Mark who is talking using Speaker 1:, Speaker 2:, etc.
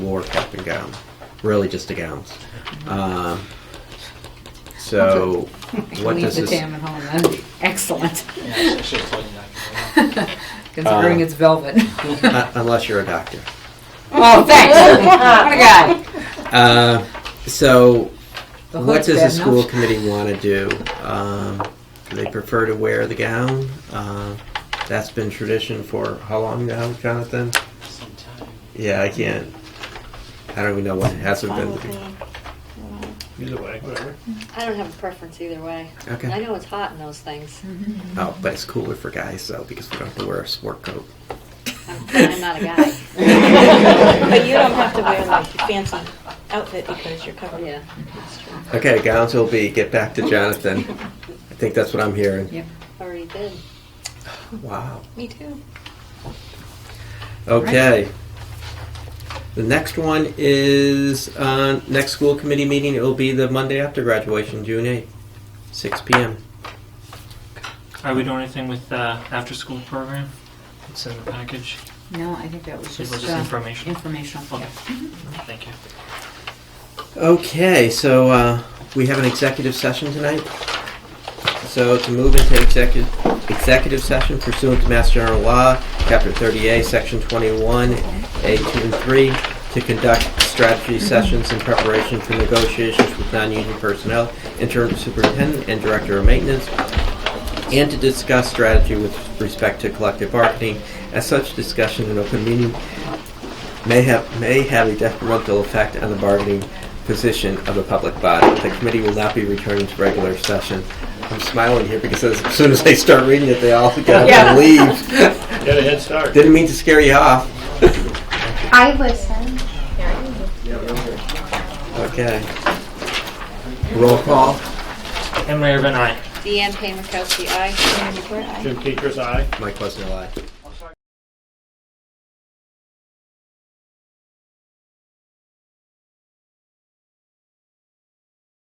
Speaker 1: war cap and gown, really just the gowns. Um, so, what
Speaker 2: Leave
Speaker 1: does
Speaker 2: the
Speaker 1: this?
Speaker 2: tam at home then. Excellent.
Speaker 3: Yeah, I should have told you that.
Speaker 2: Considering
Speaker 1: Uh,
Speaker 2: it's velvet.
Speaker 1: Uh, unless you're a doctor.
Speaker 2: oh, thanks. what a guy.
Speaker 1: Uh, so,
Speaker 2: The
Speaker 1: what
Speaker 2: hood's
Speaker 1: does the
Speaker 2: bad
Speaker 1: school
Speaker 2: enough.
Speaker 1: committee want to do? Um, do they prefer to wear the gown? Uh, that's been tradition for how long now, Jonathan?
Speaker 3: Sometime.
Speaker 1: Yeah, I can't. I don't even know what it hasn't
Speaker 4: Fine
Speaker 1: been.
Speaker 4: with me.
Speaker 5: Either way, whatever.
Speaker 4: I don't have a preference either way. I
Speaker 1: Okay.
Speaker 4: know it's hot in those things.
Speaker 1: Oh, but it's cooler for guys though because we don't have to wear a sport coat.
Speaker 4: I'm, I'm not a guy.
Speaker 6: But you don't have to wear like your fancy outfit because you're covered.
Speaker 4: Yeah, that's true.
Speaker 1: Okay, gowns will be. Get back to Jonathan. I think that's what I'm hearing.
Speaker 2: Yep.
Speaker 4: Already did.
Speaker 1: Wow.
Speaker 6: Me too.
Speaker 1: Okay. The next one is uh, next school committee meeting. It will be the Monday after graduation, June 8th, 6 p.m.
Speaker 3: Are we doing anything with the after-school program? It's in the package.
Speaker 2: No, I think that was
Speaker 3: It was
Speaker 2: just,
Speaker 3: just
Speaker 2: uh,
Speaker 3: information.
Speaker 2: informational.
Speaker 3: Okay.
Speaker 2: yeah.
Speaker 3: Thank you.
Speaker 1: Okay, so uh, we have an executive session tonight. So to move into executive executive session pursuant to Mass General Law, Chapter 30A, Section 21, A 2 and 3, to conduct strategy sessions in preparation for negotiations with non-union personnel, interim superintendent, and director of maintenance, and to discuss strategy with respect to collective bargaining. As such, discussion in open meeting may have may have a detrimental effect on the bargaining position of the public body. The committee will not be returning to regular session. I'm smiling here because as soon as I start reading it, they all get up
Speaker 2: Yeah.
Speaker 1: and leave.
Speaker 5: Get a head start.
Speaker 1: Didn't mean to scare you off.
Speaker 7: I listen.
Speaker 1: Okay. Roll call.
Speaker 3: Henry Irvin, aye.
Speaker 4: Deanne Payne Mikowski, aye.
Speaker 5: Jim Keeker's eye.
Speaker 1: Mike Quesnell, aye.